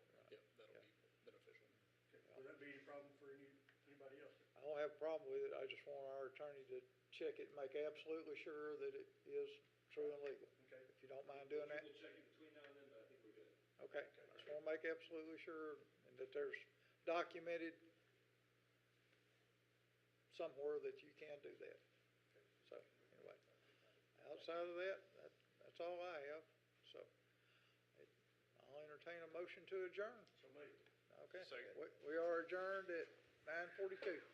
problem for any, anybody else. I don't have a problem with it, I just want our attorney to check it, and make absolutely sure that it is true and legal. Okay. If you don't mind doing that, We'll check it between now and then, but I think we're good. okay, I just wanna make absolutely sure and that there's documented somewhere that you can do that. So, anyway, outside of that, that, that's all I have, so. it- I'll entertain a motion to adjourn, So maybe. okay? Second. We, we are adjourned at nine forty-two.